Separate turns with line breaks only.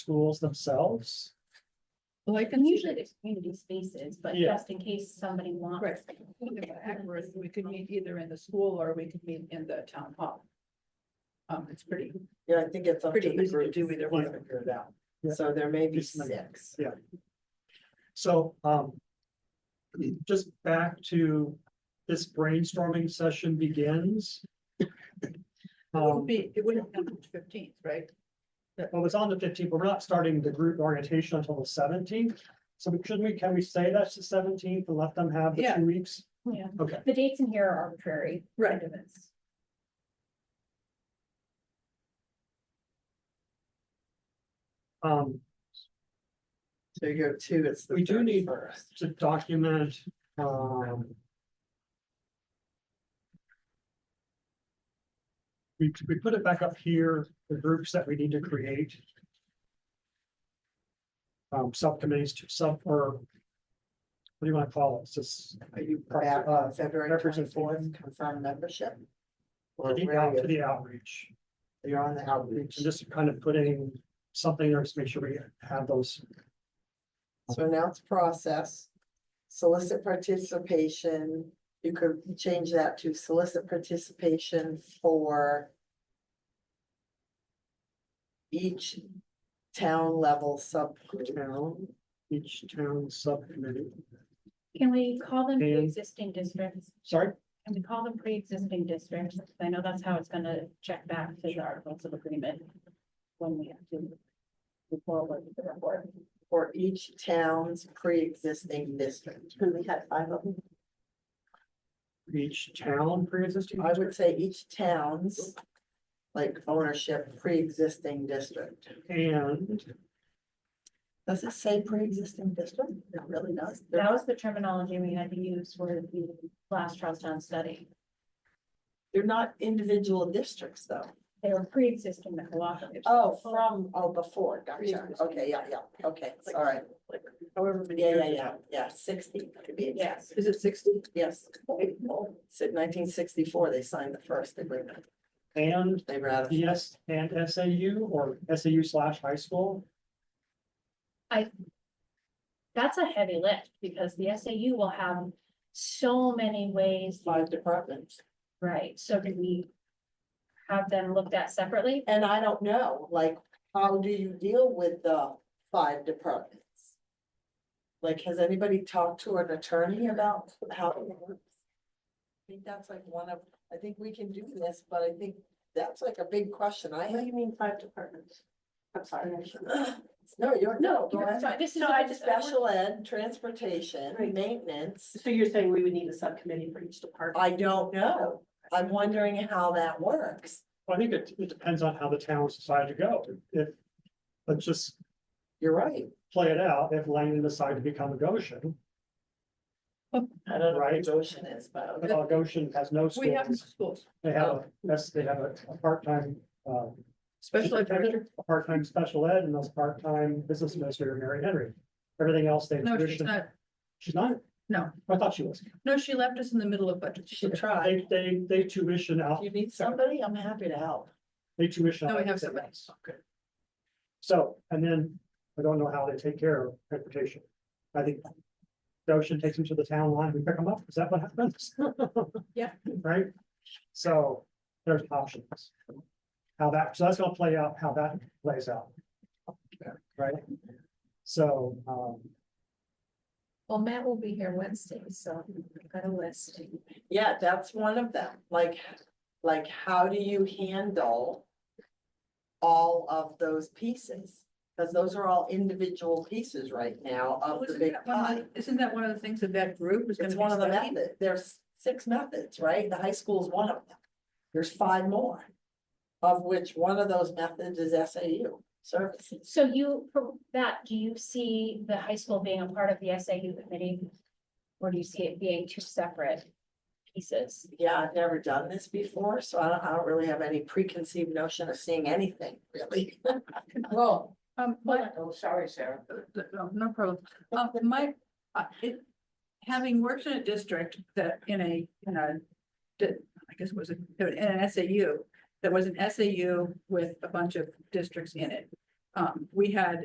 schools themselves?
Well, I can see
Usually
that.
there's community spaces, but
Yeah.
just in case somebody wants.
Right. We could meet either in the school or we could meet in the town hall. Um, it's pretty,
Yeah, I think it's up to
pretty
the
easy to
group
do
to
either one.
figure it out.
Yeah.
So there may be
Just like-
six.
So, um. Just back to this brainstorming session begins.
It wouldn't
Um,
be, it wouldn't happen the fifteenth, right?
well, it's on the fifteenth, but we're not starting the group orientation until the seventeenth. So shouldn't we, can we say that's the seventeenth and let them have the
Yeah.
two weeks?
Yeah,
Okay,
the dates in here are arbitrary.
Right.
kind of, it's-
um,
So you go two, it's the
We do need-
first.
to document, um. We, we put it back up here, the groups that we need to create. Um, subcommittees to sub, or. What do you want to call it? It's just
Are you
Right,
back
uh,
on February
represent-
twenty-fourth, confirm membership? Or
the
where
out to
are you?
the outreach,
You're on the outreach.
and just kind of putting something there to make sure we have those.
So announce process, solicit participation, you could change that to solicit participation for each town level subgroup.
Town, each town subcommittee,
Can we call them
And-
pre-existing districts?
sorry,
Can we call them pre-existing districts? I know that's how it's gonna check back to the articles of agreement. When we have to. move forward with the report.
For each town's pre-existing district. We had five of them.
each town pre-existing.
I would say each town's like ownership pre-existing district.
And
Does it say pre-existing district? It really does.
That was the terminology we had to use for the last Charlestown study.
They're not individual districts though.
They were pre-existing the cooperatives.
Oh, from, oh, before, gotcha,
Pre-existing.
okay, yeah, yeah, okay, all right. However many. Yeah, yeah, yeah, yeah, sixty, could be, yes,
Yes,
Is it sixty?
yes. Said nineteen sixty-four, they signed the first agreement,
And
they ratified.
Yes, and SAU or SAU slash high school,
that's a heavy lift because the SAU will have so many ways.
Five departments,
Right, so do we have them looked at separately?
and I don't know, like, how do you deal with the five departments? Like, has anybody talked to an attorney about how it works? I think that's like one of, I think we can do this, but I think that's like a big question I have.
What do you mean five departments? I'm sorry.
No, you're, no, go
You're
ahead.
sorry, This is.
No, I just-
Special ed, transportation,
Right.
maintenance,
So you're saying we would need a subcommittee for each department?
I don't know. I'm wondering how that works.
I think it, it depends on how the towns decide to go. If, let's just
You're right.
play it out, if Langdon decide to become a Goshen,
I don't know
Right.
what Goshen is, but.
uh, Goshen has no
We have
schools.
schools,
They have, a yes, they have a, a part-time, uh,
special education.
a part-time special ed and those part-time business administrator, Mary Henry. Everything else they.
No, she's not.
She's not?
No.
I thought she was.
No, she left us in the middle of budget.
She tried.
They, they, they tuition
If
out,
you need somebody, I'm happy to help.
they tuition.
No,
out
we have
everything
somebody.
else. So, and then I don't know how they take care of transportation. I think the ocean takes them to the town line, we pick them up, is that what happens?
Yeah.
Right? So there's options. How that, so that's gonna play out, how that plays out. Right? So, um,
Well, Matt will be here Wednesday, so I've got a list.
Yeah, that's one of them. Like, like, how do you handle all of those pieces? Because those are all individual pieces right now of the
Wasn't
big
that one
pie.
of the- Isn't that one of the things that that group is gonna
It's
be
one of the
studying?
methods. There's six methods, right? The high school is one of them. There's five more. Of which one of those methods is SAU services.
So you, for that, do you see the high school being a part of the SAU committee? Or do you see it being two separate pieces?
Yeah, I've never done this before, so I don't, I don't really have any preconceived notion of seeing anything, really.
Well,
Um, my,
oh, sorry, Sarah.
Uh, No no problem. Um, my, uh, it, having worked in a district that in a, in a, di- I guess it was a, in an SAU, that was an SAU with a bunch of districts in it. um, we had